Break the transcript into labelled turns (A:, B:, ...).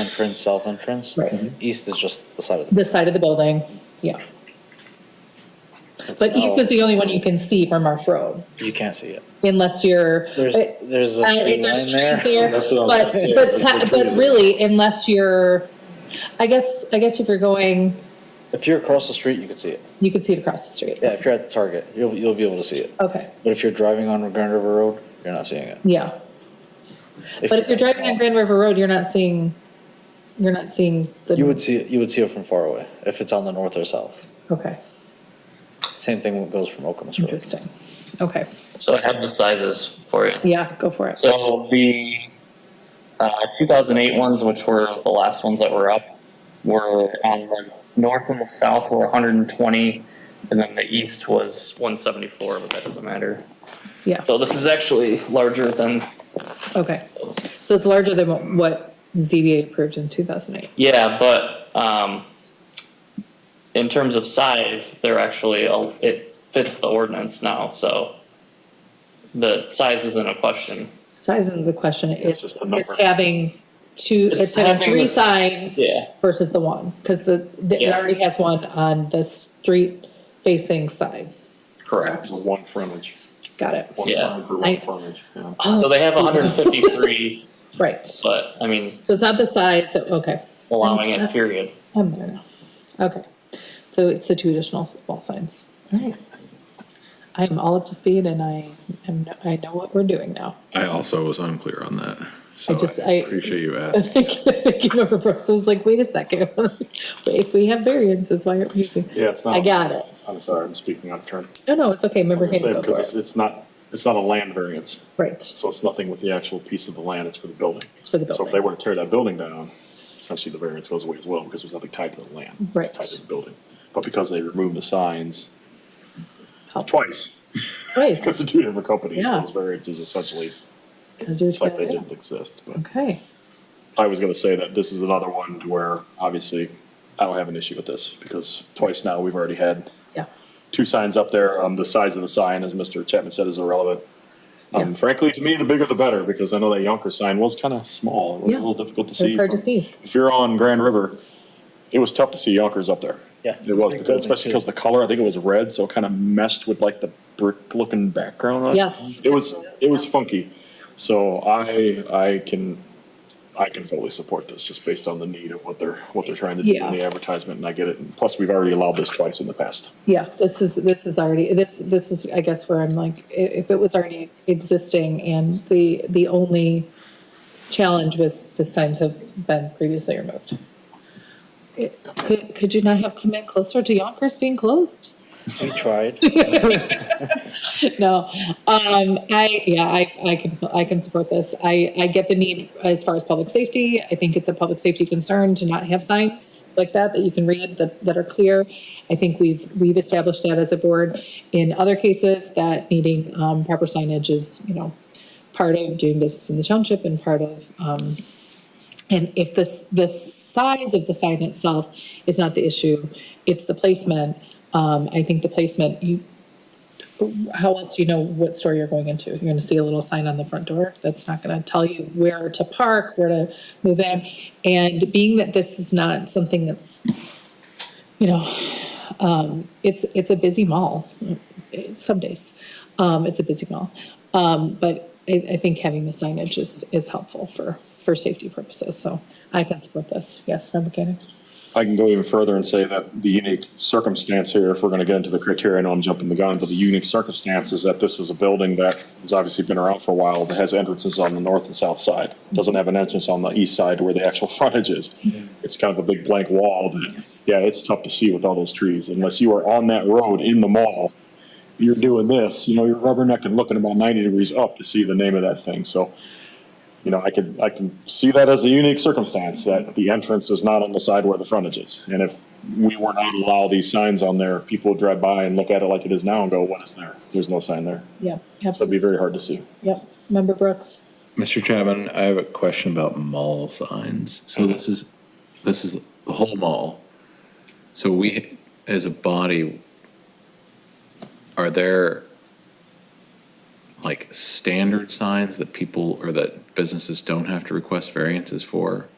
A: entrance, south entrance. Mm-hmm.
B: Right.
A: East is just the side of the.
B: the side of the building, yeah. But east is the only one you can see from Marsh Road,
A: Oh, You can't see it.
B: unless you're.
A: There's, there's a
B: Uh,
A: tree line
B: there's trees there,
C: That's what I was
B: but,
C: gonna say,
B: but,
C: there's no
B: te-
C: trees
B: but
C: there.
B: really, unless you're, I guess, I guess if you're going,
A: If you're across the street, you could see it.
B: you could see it across the street.
A: Yeah, if you're at the Target, you'll, you'll be able to see it.
B: Okay,
A: But if you're driving on Grand River Road, you're not seeing it.
B: yeah, but if you're driving on Grand River Road, you're not seeing, you're not seeing the.
A: You would see, it. you would see it from far away, if it's on the north or south.
B: Okay,
A: Same thing goes from Okemos Road.
B: interesting, okay,
D: So I have the sizes for you.
B: yeah, go for it,
D: So the uh, 2008 ones, which were the last ones that were up, were on the north and the south were 120, and then the east was 174, but that doesn't matter.
B: yeah,
D: So this is actually larger than
B: okay.
D: those.
B: So it's larger than what- what ZBA approved in two thousand eight,
D: Yeah, but um, in terms of size, they're actually a, it fits the ordinance now, so the size isn't a question.
B: size isn't the question, it's,
C: just the
B: it's
C: number.
B: having two,
D: It's
B: it's having
D: having
B: three
D: the-
B: signs.
D: Yeah.
B: versus the one, because the, the- it
D: Yeah.
B: already has one on the street facing side.
D: Correct.
C: One frontage,
B: Got it.
C: one
D: Yeah.
C: sign for
B: I- Uh,
C: one frontage, yeah.
D: So
B: Oh,
D: they have 153,
B: Right,
D: but I mean,
B: so it's not the size, so- okay,
D: allowing it, period.
B: I'm there now. Okay, so it's the two additional wall signs. Alright. I am all up to speed and I am, I know what we're doing now.
E: I also was unclear on that. So
B: just-
E: I
B: I-
E: appreciate you
B: I
E: asking.
B: think, I think you remember Brooks was like, wait a second, if we have variances, why aren't we using?
C: Yeah, it's not.
B: I got it.
C: I'm sorry, I'm speaking out of turn.
B: No, no, it's okay,
C: Um, I was
B: remember
C: gonna
B: him
C: say,
B: go
C: because
B: for
C: it's,
B: it.
C: it's not, it's not a land variance,
B: Right,
C: so it's nothing with the actual piece of the land, it's for the building.
B: it's for the
C: So if they
B: building,
C: were to tear that building down, essentially the variance goes away as well, because there's nothing tied to the land.
B: Right.
C: It's tied to the building. But because they removed the signs
B: Help.
C: twice, because
B: Nice.
C: they're two different companies,
B: Yeah.
C: those variances essentially,
B: Gotta do it
C: it's like they
B: together.
C: didn't exist, but.
B: Okay,
C: I was gonna say that this is another one where obviously I don't have an issue with this because twice now we've already had
B: yeah,
C: two signs up there. Um, the size of the sign, as Mr. Chapman said, is irrelevant. Um,
B: Yeah.
C: frankly, to me, the bigger the better because I know that Yonker sign was kind of small. It was
B: Yeah.
C: a little difficult to see.
B: it's hard to
C: from-
B: see.
C: If you're on Grand River, it was tough to see Yonkers up there.
A: Yeah.
C: It was,
A: Big
C: because-
A: building,
C: especially
A: too.
C: because the color, I think it was red, so it kind of meshed with like the brick-looking background. on it.
B: Yes.
C: It was, it was funky. So I, I can, I can fully support this, just based on the need of what they're, what they're trying to do
B: Yeah.
C: in the advertisement, and I get it. And Plus, we've already allowed this twice in the past.
B: Yeah, this is, this is already, this, this is, I guess where I'm like, i- if it was already existing and the, the only challenge was the signs have been previously removed. It- Could, could you not have come in closer to Yonkers being closed?
A: We tried.
B: No, um, I, yeah, I, I can, I can support this. I, I get the need as far as public safety. I think it's a public safety concern to not have signs like that, that you can read, that, that are clear. I think we've, we've established that as a board. In other cases, that needing, um, proper signage is, you know, part of doing business in the township and part of, um, and if this, the size of the sign itself is not the issue, it's the placement. Um, I think the placement, you, how else do you know what store you're going into? You're going to see a little sign on the front door that's not going to tell you where to park, where to move in. And being that this is not something that's, you know, um, it's, it's a busy mall, eh, some days, um, it's a busy mall. Um, but I, I think having the signage is, is helpful for, for safety purposes, so I can support this. Yes, Member Cannon?
C: I can go even further and say that the unique circumstance here, if we're gonna get into the criteria, I know I'm jumping the gun, but the unique circumstance is that this is a building that has obviously been around for a while, that has entrances on the north and south side. Doesn't have an entrance on the east side where the actual frontage is. It's kind of a big blank wall that, yeah, it's tough to see with all those trees. Unless you are on that road in the mall, you're doing this, you know, you're rubbernecking, looking about ninety degrees up to see the name of that thing, so you know, I could, I can see that as a unique circumstance, that the entrance is not on the side where the frontage is. And if we were not to allow these signs on there, people would drive by and look at it like it is now and go, what is there? There's no sign there.
B: Yeah,
C: So it'd be
B: absolutely.
C: very hard to see.
B: Yep, Member Brooks?
E: Mr. Chapman, I have a question about mall signs. So this is, this is the whole mall. So we, as a body, are there like standard signs that people or that businesses don't have to request variances for?